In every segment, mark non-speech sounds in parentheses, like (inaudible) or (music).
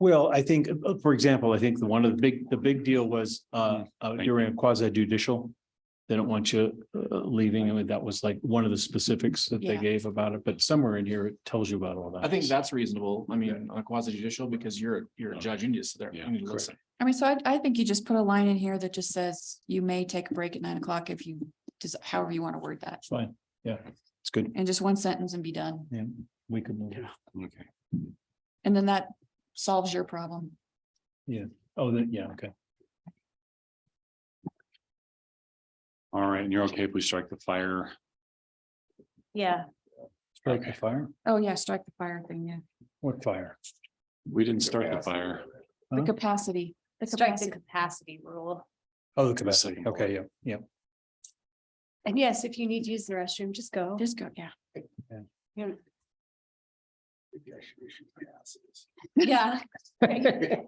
Well, I think, uh, for example, I think the one of the big, the big deal was uh uh, Thank during a quasi judicial. They don't want you uh, leaving. I mean, that was like one of the specifics that they Yeah. gave about it, but somewhere in here it tells you about all that. I think that's reasonable. I mean, on a quasi judicial, because you're, you're a judge, you need to sit there. Yeah, You need to correct. listen. I mean, so I, I think you just put a line in here that just says you may take a break at nine o'clock if you, just however you want to word that. It's Fine. Yeah, it's good. And just one sentence and be done. Yeah, we could move. it. Okay. And then that solves your problem. Oh, then, yeah, okay. All right, and you're okay if we strike the fire? Yeah, Strike the fire. Oh, yeah, strike the fire thing, yeah. What fire? We didn't start the fire. The Huh? capacity. The strike the capacity. capacity rule. Oh, the capacity. capacity. Okay, yeah, yeah. And yes, if you need to use the restroom, just go. Just go, (laughs) yeah. Yeah. (laughs)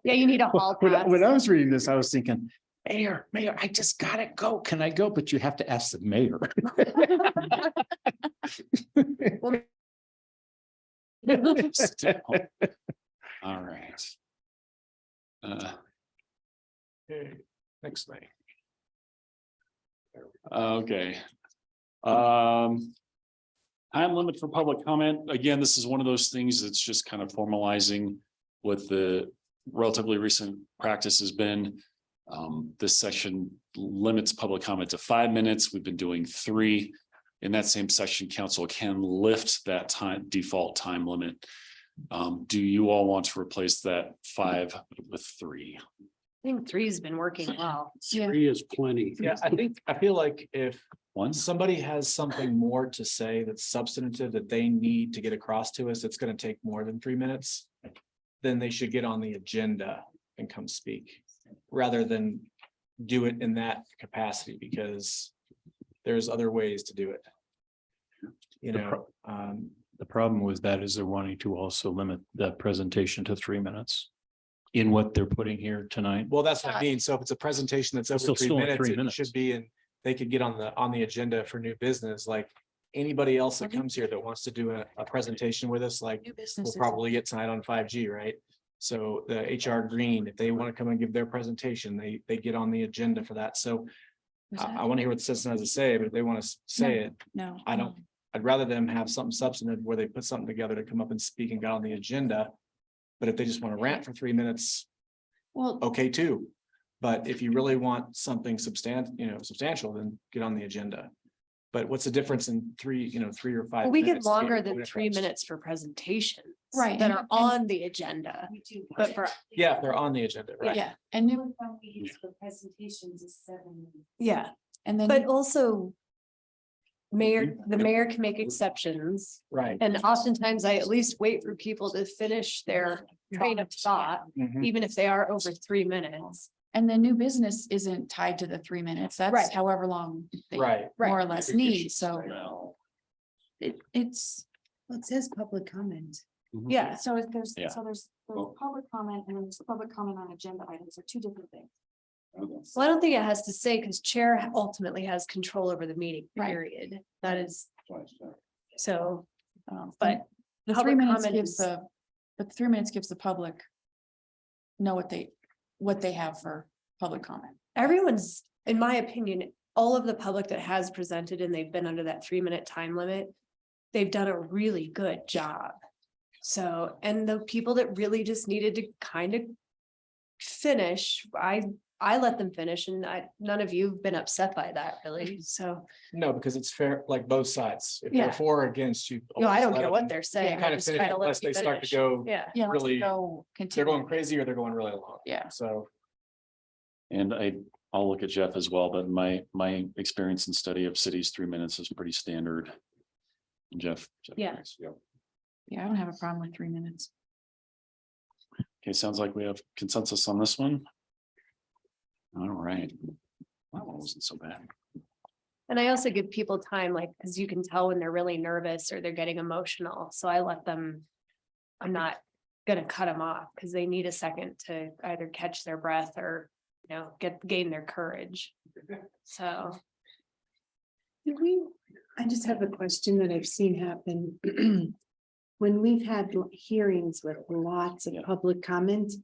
Yeah, you need a hall When I- pass. when I was reading this, I was thinking, Mayor, Mayor, I just gotta go. Can I go? But you have to ask the (laughs) mayor. (laughs) Still. (laughs) All right. Uh, Next thing. Okay. Oh, Um. Time limit for public comment. Again, this is one of those things that's just kind of formalizing what the relatively recent practice has been. Um, this section limits public comment to five minutes. We've been doing three. In that same section, council can lift that time default time limit. Um, do you all want to replace that five with three? think three's been working well. Yeah, Three is plenty. Yeah, (laughs) I think, I feel like if One? somebody has something more to say that's substantive that they need to get across to us, it's gonna take more than three minutes. Then they should get on the agenda and come speak, rather than do it in that capacity, because there's other ways to do it. You The know, um, The problem with that is they're wanting to also limit the presentation to three minutes. In what they're putting here tonight. well, that's what I mean, so if it's a presentation that's over Still- three still in minutes, three it minutes. should be, and they could get on the, on the agenda for new business, like. Anybody else that Okay. comes here that wants to do a, a presentation with us, like, new we'll businesses. probably get tonight on five G, right? So the HR Green, if they want to come and give their presentation, they, they get on the agenda for that. So Was I, that- want to hear what the citizen has to say, but if they want to say it, No. I don't- I'd rather them have something substantive where they put something together to come up and speak and got on the agenda. But if they just want to rant for three minutes, Well, okay too. But if Mm-hmm. you really want something substan- you know, substantial, then get on the agenda. But what's the difference in three, you know, three or five? We get minutes to longer what than it three costs? minutes for presentations. Right, That and- (laughs) are on the agenda, but for, Yeah, if they're on the agenda, right? yeah, and new, yeah, and then. but also. Mayor, Mm-hmm. the mayor can make exceptions Right. and oftentimes I at least wait for people to finish their train of thought, Mhm. even if they are over three minutes. And the new business isn't tied to the three minutes. That's Right. however long they more Right. or less need, so No. it, it's. It says public comment. Mhm. Yeah, So if there's, Yeah. so there's Well- public comment and there's public comment on agenda items are two different things. Well, I don't think it has to say because chair ultimately has control over the meeting Right. period. That is, so, But But the three public minutes comment gives is- the, the three minutes gives the public know what they, what they have for public comment. everyone's, in my opinion, all of the public that has presented and they've been under that three minute time limit. They've done a really good job. So, and the people that really just needed to kind of. Finish, I, I let them finish and I, none of you've been upset by that really, so, No, because it's fair, like both sides. If Yeah. they're for or against you. no, I always don't let care them what they're saying. I Kind of just finish try to let unless you they start to finish. go, Yeah. Yeah. let's Really, go they're continue. going crazy or they're going really long. Yeah. So And I, I'll look at Jeff as well, but my, my experience and study of cities, three minutes is pretty standard. Jeff. Jeff Yeah. agrees. Yeah, I don't have a problem with three minutes. Okay, sounds like we have consensus on this one. All right. That one wasn't so bad. And I also give people time, like, because you can tell when they're really nervous or they're getting emotional, so I let them. I'm not gonna cut them off because they need a second to either catch their breath or, you know, get, gain their courage. So. Did we, I just have a question that I've seen (clears throat) happen. When we've had l- hearings with lots of Yeah. public comment,